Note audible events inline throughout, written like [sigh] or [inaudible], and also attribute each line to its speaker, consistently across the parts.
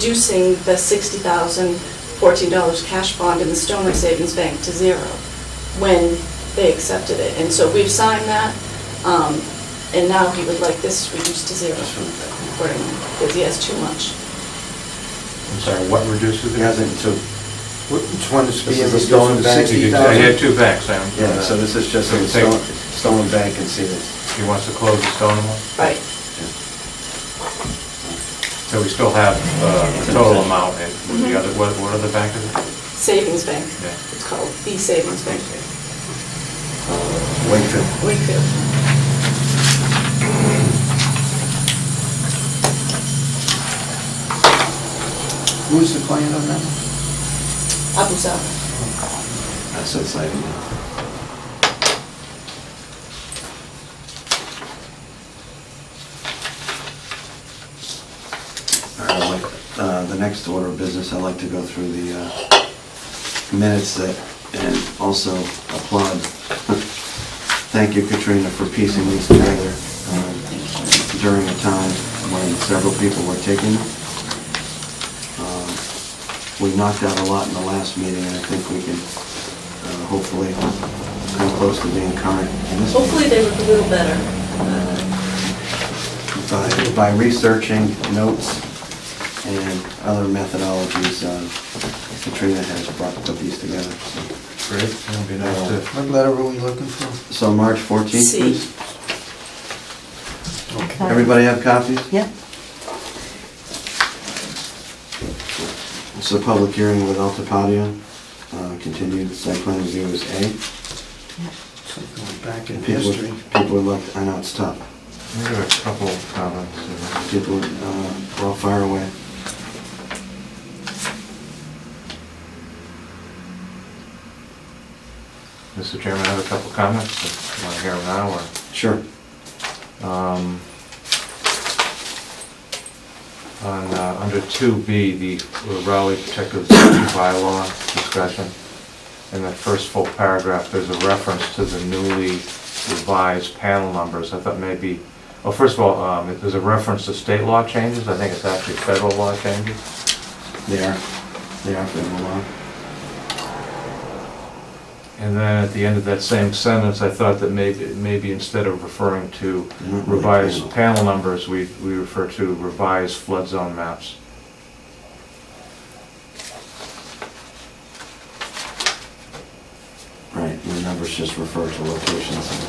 Speaker 1: reducing the $60,014 cash bond in the Stoner Savings Bank to zero when they accepted it. And so we've signed that, um, and now he would like this reduced to zero accordingly, because he has too much.
Speaker 2: I'm sorry, what reduces
Speaker 3: It
Speaker 2: it?
Speaker 3: hasn't, so, wh- which one is being
Speaker 2: This is
Speaker 3: stolen
Speaker 2: the
Speaker 3: back?
Speaker 2: 60,000. I had two backs, I am.
Speaker 3: Yeah, so this is just
Speaker 2: So
Speaker 3: a
Speaker 2: take-
Speaker 3: stolen, stolen bank and see this.
Speaker 2: He wants to close the Stone one,
Speaker 1: Right.
Speaker 2: so we still have uh, the total amount, and with the other, what what other bank is it?
Speaker 1: Savings Bank.
Speaker 2: Yeah.
Speaker 1: It's called the Savings Bank.
Speaker 3: Wakefield.
Speaker 1: Wakefield.
Speaker 3: Who's the client on that? one?
Speaker 1: Abu Saab.
Speaker 3: That's inside. I'd like, uh, the next order of business, I'd like to go through the uh, minutes that, and also applaud. Thank you Katrina for piecing these together um, during a time when several people were taking them. Um, We knocked out a lot in the last meeting, and I think we can uh, hopefully come close to being current in this meeting
Speaker 1: Hopefully they look a little better. Uh,
Speaker 3: by- uh, by researching notes and other methodologies, uh, Katrina has brought put these together.
Speaker 2: Great, it'll be nice to,
Speaker 4: What letter were we looking for?
Speaker 3: So March 14th,
Speaker 1: C.
Speaker 3: please.
Speaker 4: Okay.
Speaker 3: Everybody have copies?
Speaker 5: Yeah.
Speaker 3: It's a public hearing with Altipatia, uh, continued site plan review is A.
Speaker 4: So Going back in
Speaker 3: And people-
Speaker 4: history.
Speaker 3: People would like, I know it's tough,
Speaker 2: we have a couple of comments. uh,
Speaker 3: people uh, are all far away.
Speaker 2: Mr. Chairman, I have a couple of comments, want to hear them now, or?
Speaker 3: Sure.
Speaker 2: Um, On, uh, under 2B, the Raleigh Protective Zone bylaw discussion, in the first full paragraph, there's a reference to the newly revised panel numbers. I thought maybe, well, first of all, um, there's a reference to state law changes, I think it's actually federal law changes.
Speaker 3: They are, they are federal law.
Speaker 2: And then at the end of that same sentence, I thought that maybe, maybe instead of referring to
Speaker 3: Not really
Speaker 2: revised
Speaker 3: panel.
Speaker 2: panel numbers, we, we refer to revised flood zone maps.
Speaker 3: Right, the numbers just refer to locations.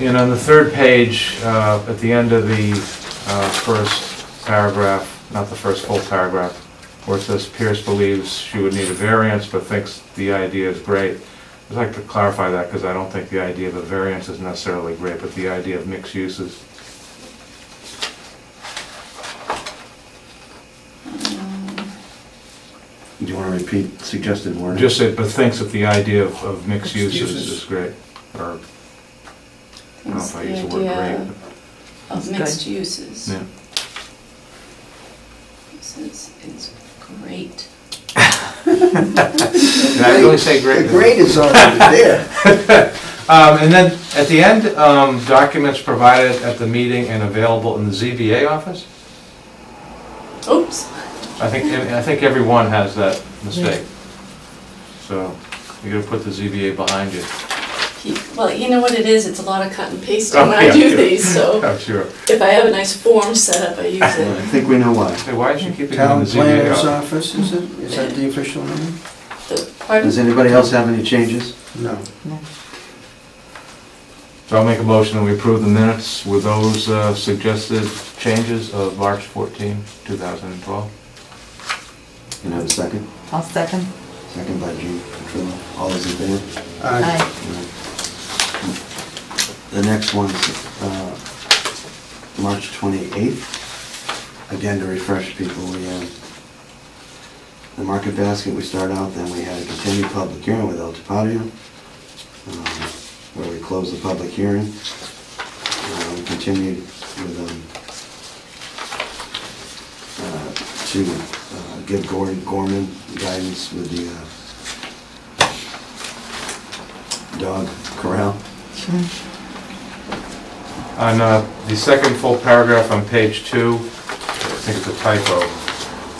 Speaker 2: And on the third page, uh, at the end of the uh, first paragraph, not the first full paragraph, where it says Pierce believes she would need a variance but thinks the idea is great. I'd like to clarify that because I don't think the idea of a variance is necessarily great, but the idea of mixed uses.
Speaker 3: Do you want to repeat suggested wording?
Speaker 2: Just said, but thinks that the idea of of mixed
Speaker 4: Mixed
Speaker 2: uses
Speaker 4: uses.
Speaker 2: is great, or, I don't know
Speaker 1: It's
Speaker 2: if I
Speaker 1: the
Speaker 2: use the word
Speaker 1: idea
Speaker 2: great.
Speaker 1: of mixed uses.
Speaker 2: but- yeah.
Speaker 1: This is, it's great.
Speaker 2: Did I really say great?
Speaker 4: The grade is already there.
Speaker 2: Um, and then, at the end, um, documents provided at the meeting and available in the ZBA office?
Speaker 1: Oops.
Speaker 2: I think, I think everyone has that mistake. So, you gotta put the ZBA behind you.
Speaker 1: He- Well, you know what it is, it's a lot of cut and pasting
Speaker 2: Oh,
Speaker 1: when I
Speaker 2: yeah,
Speaker 1: do
Speaker 2: yeah.
Speaker 1: these, so
Speaker 2: I'm sure.
Speaker 1: if I have a nice form set up, I use
Speaker 2: [laughs]
Speaker 3: I
Speaker 1: it.
Speaker 3: think we know why.
Speaker 2: Hey, why is she keeping it in the
Speaker 4: Town
Speaker 2: ZBA
Speaker 4: planner's
Speaker 2: office?
Speaker 4: office, is it? Is that the official name?
Speaker 1: The- Pardon?
Speaker 3: Does anybody else have any changes?
Speaker 4: No.
Speaker 2: So I'll make a motion that we approve the minutes with those, uh, suggested changes of March 14, 2012.
Speaker 3: Can I have a second?
Speaker 5: I'll second.
Speaker 3: Second by Gene Petrillo. All those in favor?
Speaker 4: Uh, Aye.
Speaker 5: Aye.
Speaker 3: The next one's uh, March 28th. Again, to refresh people, we have the market basket we start out, then we had a continued public hearing with El Tapadio, um, where we closed the public hearing. Uh, We continued with, um, uh, to uh, give Gordon Gorman guidance with the uh, dog corral.
Speaker 2: On uh, the second full paragraph on page two, I think it's a typo.